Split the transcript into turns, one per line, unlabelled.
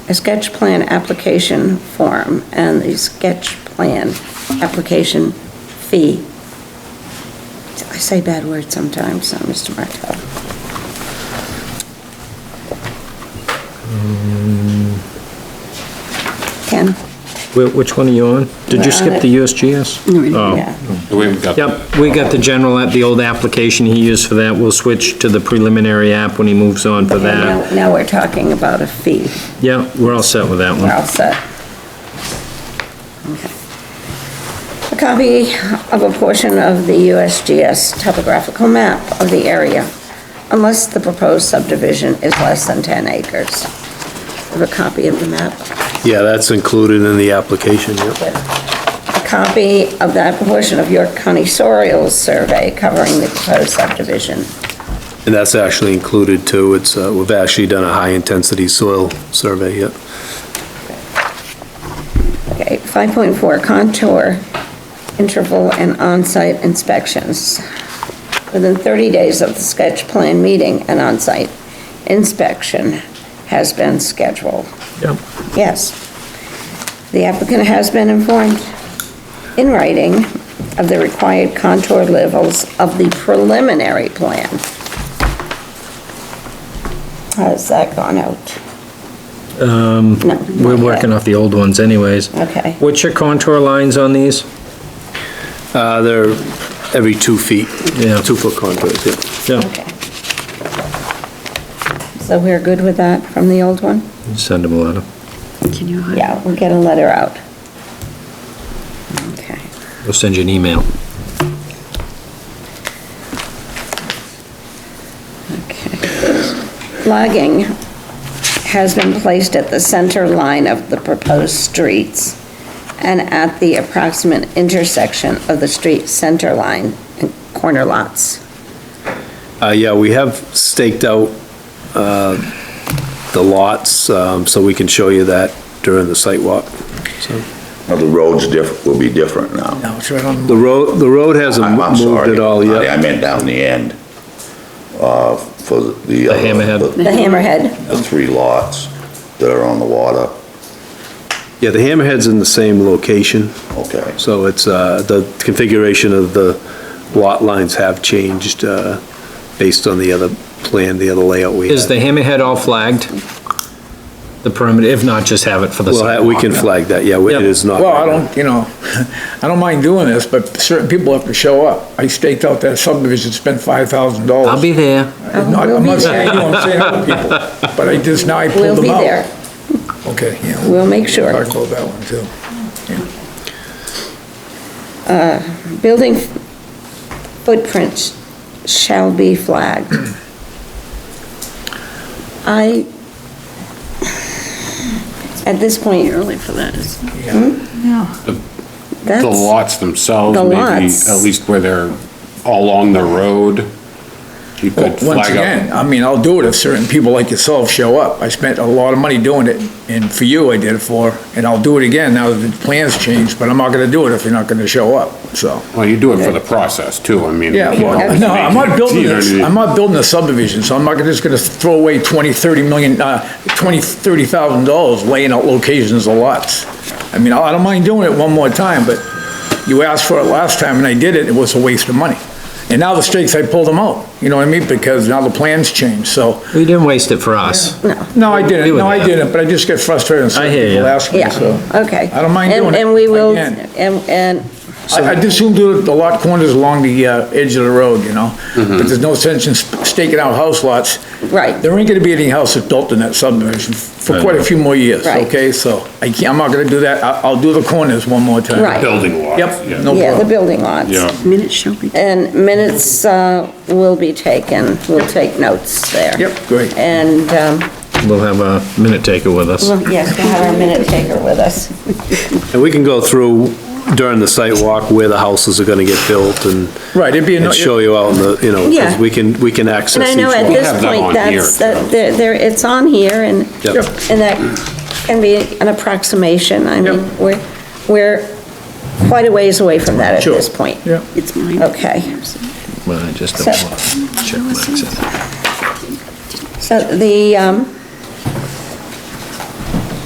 a sketch plan application form and the sketch plan application fee. I say bad words sometimes, uh, Mr. Martel.
Mm.
Ken?
Wh- Which one are you on? Did
Uh,
you skip the USGS?
Yeah.
We've got.
Oh. Yep, we got the general, app, the old application he used for that. We'll switch to the preliminary app when he moves on for that.
Now, now we're talking about a fee.
Yeah, we're all set with that
We're
one.
all set. Okay. A copy of a portion of the USGS topographical map of the area, unless the proposed subdivision is less than 10 acres. Have a copy of the map.
Yeah, that's included in the application, yep.
A copy of that portion of York County Soil Survey covering the proposed subdivision.
And that's actually included too. It's, uh, we've actually done a high-intensity soil survey, yep.
Okay, 5.4 contour, interval and on-site inspections. Within 30 days of the sketch plan meeting, an on-site inspection has been scheduled.
Yep.
Yes. The applicant has been informed in writing of the required contour levels of the preliminary plan. How's that gone out? Um.
We're working off the old ones anyways.
Okay.
What's your contour lines on these?
Uh, They're every two feet.
Yeah.
Two-foot contours, yeah.
Yeah,
Okay. So we're good with that from the old one?
send him a letter.
Can you hide?
Yeah, we'll get a letter out. Okay.
We'll send you an email.
Okay. Logging has been placed at the center line of the proposed streets and at the approximate intersection of the street center line and corner lots.
Uh, Yeah, we have staked out uh, the lots, um, so we can show you that during the site walk. So
Now, the roads diff, will be different now.
No, it's right on.
The road, the road hasn't
I'm I'm
moved
sorry.
at all yet.
I meant down the end, uh, for the.
The hammerhead.
The hammerhead,
The three lots that are on the water,
Yeah, the hammerhead's in the same location,
okay.
so it's, uh, the configuration of the lot lines have changed uh, based on the other plan, the other layout we
Is the
had.
hammerhead all flagged? The perimeter, if not, just have it for the
We'll ha- We
sidewalk.
can flag that, yeah,
Yep.
it is not.
Well, I don't, you know, I don't mind doing this, but certain people have to show up. I staked out that subdivision, spent five thousand dollars.
I'll be there.
I'm not I'm not saying you, I'm saying other people, but I just, now I
we'll
pulled
be
them out.
there.
Okay, yeah.
We'll make sure.
Talk about that one too.
Building footprints shall be flagged. I, at this point,
Early for that, isn't it? Yeah.
The
Hmm? that's,
lots themselves,
The
maybe,
lots.
at least where they're all on the road, you could
Once
flag up.
again, I mean, I'll do it if certain people like yourself show up. I spent a lot of money doing it, and for you, I did it for, and I'll do it again now that the plans changed, but I'm not gonna do it if you're not gonna show up, so.
Well, you do it for the process too, I mean.
Yeah,
you
well,
know,
no, I'm not building
you know,
this, I'm not building a subdivision, so I'm not just gonna throw away twenty, thirty million, uh, twenty, thirty thousand dollars laying out locations of lots. I mean, I don't mind doing it one more time, but you asked for it last time and I did it, it was a waste of money. And now the stakes, I pulled them out, you know what I mean, because now the plans changed, so,
We didn't waste it for us.
no, I
We
didn't,
would
no, I
have.
didn't, but I just get frustrated and
I hear
certain
you.
people ask me,
yeah,
so.
okay.
I don't mind
And-
doing it
And we
if I
will,
can.
and, and
I, I just assume do it the lot corners along the, uh, edge of the road, you know? But there's no sense in sp- staking out house lots.
Mm-hmm. Right.
There ain't gonna be any houses built in that subdivision for
I
quite
know.
a few more years,
Right.
okay? So I can't, I'm not gonna do that. I, I'll do the corners one more time.
Right.
Building lots.
Yep,
yeah.
no
yeah, the
problem.
building lots.
Yeah.
Minutes shall be.
And minutes uh, will be taken, we'll take notes there.
Yep, great.
And, um,
We'll have a minute taker with us.
well, yes, we'll have our minute taker with us.
And we can go through during the site walk where the houses are gonna get built and.
Right, it'd be a
And
no-
show you out in the, you know,
Yeah.
because we can, we can
And
access
I
each
know at
one.
this
have that
point,
on
that's,
here,
that,
so.
there, there- it's on here, and,
Yep. Yep.
and that can be an approximation, I mean, we're, we're quite a ways away from that at
Sure.
this point.
Yeah.
It's mine.
Okay.
Well, I just
So-
don't want check marks in.
So the, um,